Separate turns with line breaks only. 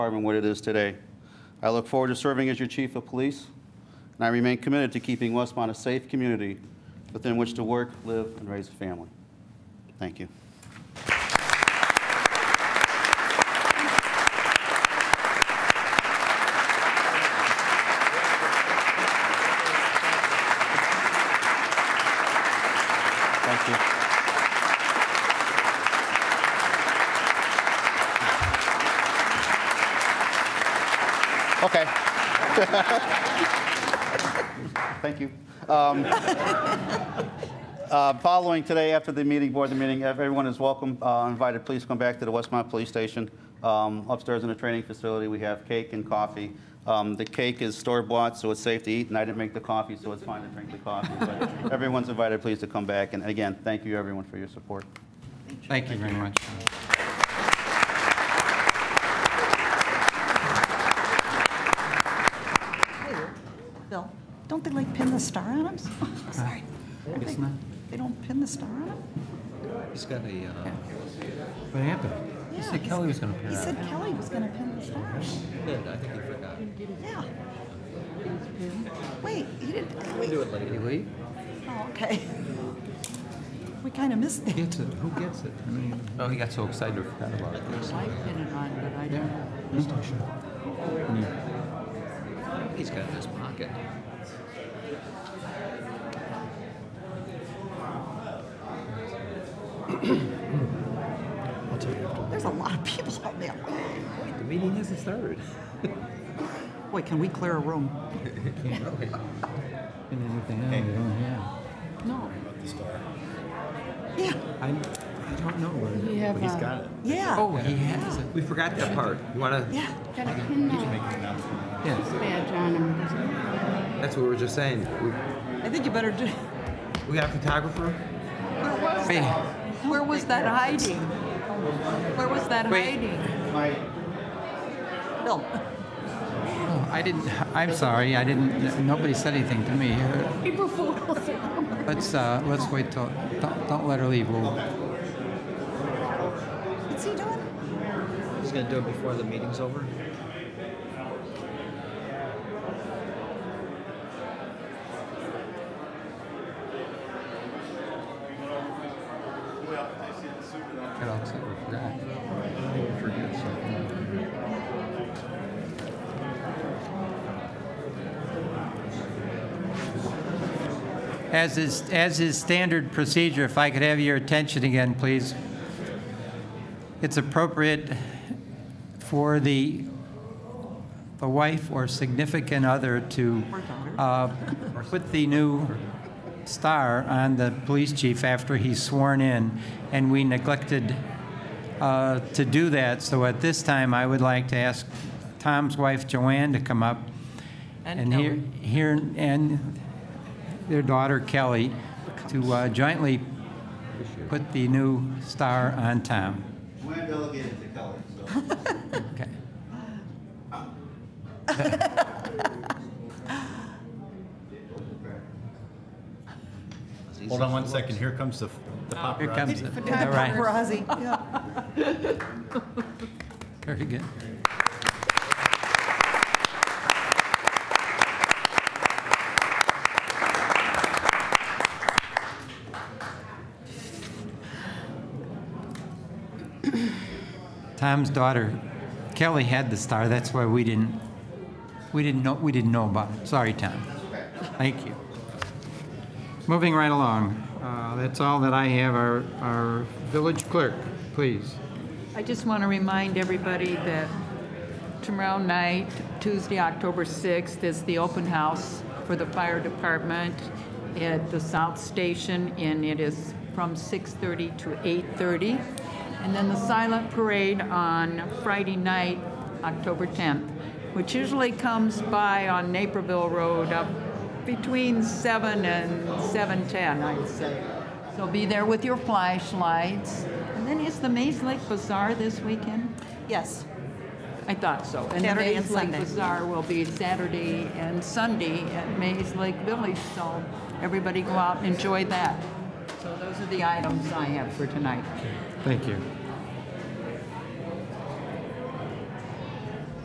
department what it is today. I look forward to serving as your chief of police, and I remain committed to keeping Westmont a safe community within which to work, live, and raise a family. Thank you. Thank you. Okay. Thank you. Um, uh, Following today, after the meeting, board the meeting, everyone is welcome, uh, invited, please come back to the Westmont Police Station. Um, Upstairs in the training facility, we have cake and coffee. Um, The cake is store bought, so it's safe to eat, and I didn't make the coffee, so it's fine to drink the coffee. But everyone's invited, please, to come back. And again, thank you, everyone, for your support.
Thank you very much.
Hey, Bill, don't they like pin the star on them? Sorry. I
It's
think-
not-
They don't pin the star on them?
He's got a, uh,
What happened? He said Kelly was going to
He
pair
said
up.
Kelly was gonna pin the star.
pin. I think he forgot.
Yeah. Wait, he didn't, wait,
Do it later.
Did he leave?
oh, okay. We kinda missed that.
Gets it. Who gets it? I mean,
Oh, he got so excited he forgot about it.
I pin it on, but I
Hmm.
he's got it in his pocket.
There's a lot of people out there.
Wait, the meeting hasn't started.
Boy, can we clear a room?
And
oh,
everything else, yeah.
No. Yeah,
I, I don't know where.
You have uh,
yeah,
Oh, he has it.
We forgot that part. You wanna?
yeah.
got a pin uh,
Yes.
badge on him.
That's what we were just saying. We,
I think you better do,
we got a photographer.
where was
Hey.
that? Where was that hiding? Where was that
Wait.
hiding? Bill,
Oh, I didn't, I'm sorry, I didn't, nobody said anything to me. Uh,
April Fool's.
Let's, uh, let's wait till, don't, don't let her leave. We'll-
what's he doing?
He's gonna do it before the meeting's over.
Get all excited, we forgot. As is, as is standard procedure, if I could have your attention again, please. It's appropriate for the, the wife or significant other to uh, put the new star on the police chief after he's sworn in, and we neglected uh, to do that. So at this time, I would like to ask Tom's wife, Joanne, to come up.
And
hear-
Kelly.
hear, and their daughter, Kelly, to uh, jointly put the new star on Tom.
Joanne delegated to Kelly, so.
Okay.
Hold on one second, here comes the the
Here
paparazzi.
comes it. All right.
Paparazzi, yeah.
Very good. Tom's daughter, Kelly, had the star. That's why we didn't. We didn't know. We didn't know about it. Sorry, Tom. Thank you. Moving right along. Uh, that's all that I have. Our, our village clerk, please.
I just want to remind everybody that tomorrow night, Tuesday, October 6th, is the open house for the fire department at the South Station, and it is from 6:30 to 8:30. And then the silent parade on Friday night, October 10th, which usually comes by on Naperville Road up between 7 and 7:10, I'd say. So be there with your flashlights. And then is the Maze Lake Bazaar this weekend?
Yes,
I thought so.
Saturday and
the Maze Lake
Sunday.
Bazaar will be Saturday and Sunday at Maze Lake Village. So everybody go out and enjoy that. So those are the items I have for tonight.
Thank you.